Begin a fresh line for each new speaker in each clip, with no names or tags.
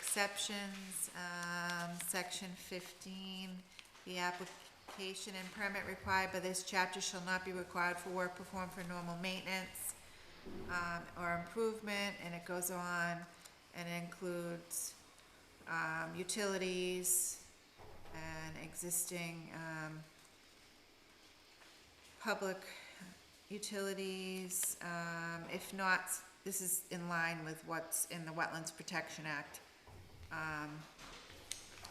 exceptions, um, section fifteen, the application and permit required by this chapter shall not be required for work performed for normal maintenance, um, or improvement, and it goes on, and it includes, um, utilities and existing, um, public utilities, um, if not, this is in line with what's in the Wetlands Protection Act. Um,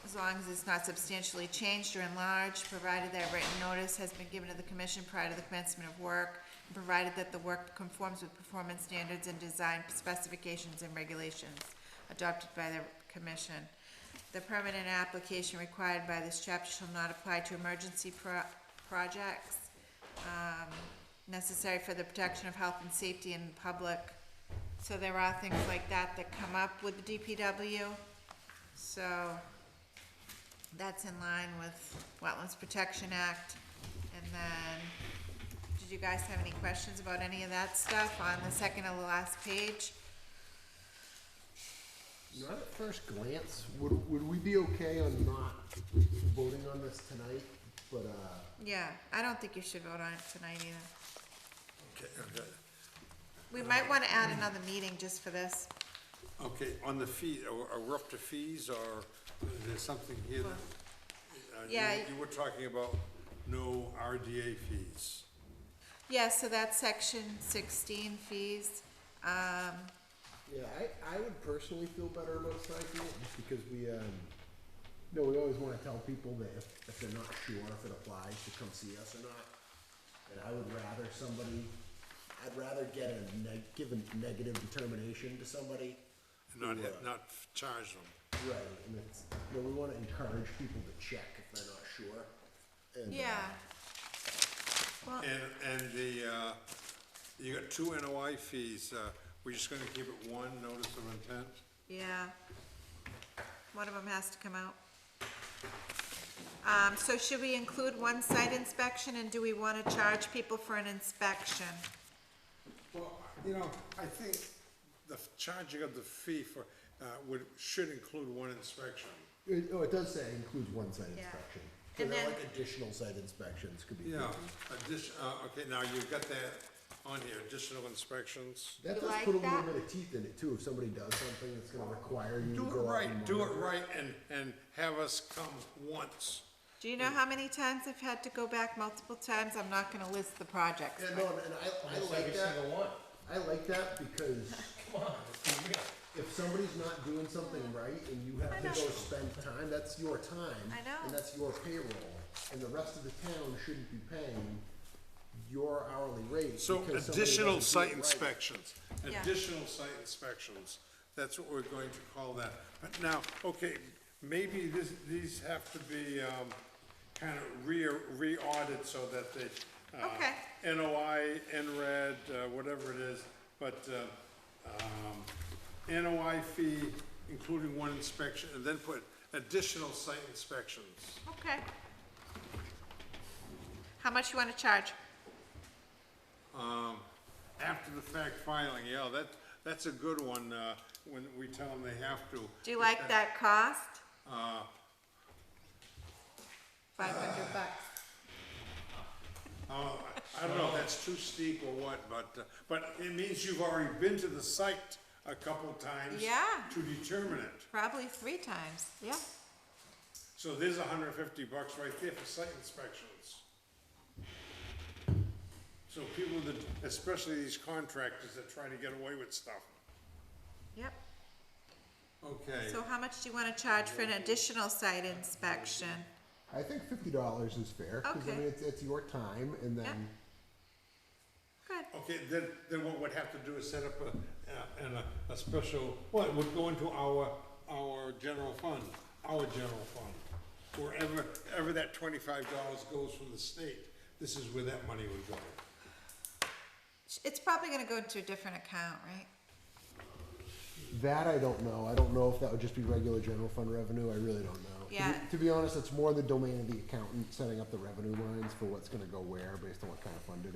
as long as it's not substantially changed or enlarged, provided that written notice has been given to the commission prior to the commencement of work, and provided that the work conforms with performance standards and design specifications and regulations adopted by the commission. The permanent application required by this chapter shall not apply to emergency pro- projects, um, necessary for the protection of health and safety in public. So there are things like that that come up with the DPW, so that's in line with Wetlands Protection Act. And then, did you guys have any questions about any of that stuff on the second to the last page?
Not at first glance, would, would we be okay on not voting on this tonight, but, uh,
Yeah, I don't think you should vote on it tonight either.
Okay, okay.
We might wanna add another meeting just for this.
Okay, on the fee, are are we up to fees or there's something here that? uh, you-
Yeah, I-
You were talking about no RDA fees.
Yeah, so that's section sixteen fees. Um,
yeah, I, I would personally feel better about striking it, just because we, um, no, we always wanna tell people that if, if they're not sure if it applies, to come see us or not. And I would rather somebody, I'd rather get a neg, give a negative determination to somebody.
Not,
who, uh,
not charge them.
Right, and it's, you know, we wanna encourage people to check if they're not sure. and, uh,
yeah,
And, and the, uh, you got two NOI fees, uh, we're just gonna keep it one, notice of intent?
yeah. One of them has to come out. Um, so should we include one site inspection and do we wanna charge people for an inspection?
Well, you know, I think the f- charging of the fee for, uh, would, should include one inspection.
It, oh, it does say includes one site
Yeah.
inspection. So
And
they're
then-
like additional site inspections could be.
Yeah,
included.
addition, uh, okay, now you've got that on here, additional inspections.
You
That does
like
put a little
that?
bit of teeth in it too, if somebody does something that's gonna require you to
Do it
go out
right,
and
do it
monitor.
right, and, and have us come once.
Do you know how many times I've had to go back multiple times? I'm not gonna list the projects.
Yeah,
but-
no, and and I, I like that,
one.
I like that because if somebody's not doing something right and you have to
Mm. know.
go spend time, that's your time.
I know.
And that's your payroll, and the rest of the town shouldn't be paying your hourly rate.
So
because somebody
additional
doesn't do it
site
right.
inspections,
Yeah.
additional site inspections, that's what we're going to call that. But now, okay, maybe this, these have to be, um, kind of re, re-audited so that they, uh,
Okay.
NOI, NRED, uh, whatever it is, but, uh, um, NOI fee, including one inspection, and then put additional site inspections.
Okay. How much you wanna charge?
After the fact filing, yeah, that, that's a good one, uh, when we tell them they have to.
Do you like that cost? Five hundred bucks.
Oh, I I don't know if that's too steep or what, but, uh, but it means you've already been to the site a couple times.
Yeah.
To determine it.
Probably three times, yeah.
So there's hundred and fifty bucks right there for site inspections. So people that, especially these contractors that try to get away with stuff.
Yep.
Okay.
So how much do you wanna charge for an additional site inspection?
I think fifty dollars is fair, because I
Okay.
mean, it's, it's your time, and then,
Good,
Okay, then, then what we'd have to do is set up a, uh, and a, a special, well, it would go into our, our general fund, our general fund. Wherever, ever that twenty-five dollars goes from the state, this is where that money would go.
it's probably gonna go into a different account, right?
that I don't know, I don't know if that would just be regular general fund revenue, I really don't know. To be-
Yeah.
To be honest, it's more the domain of the accountant, setting up the revenue lines for what's gonna go where, based on what kind of fund it is.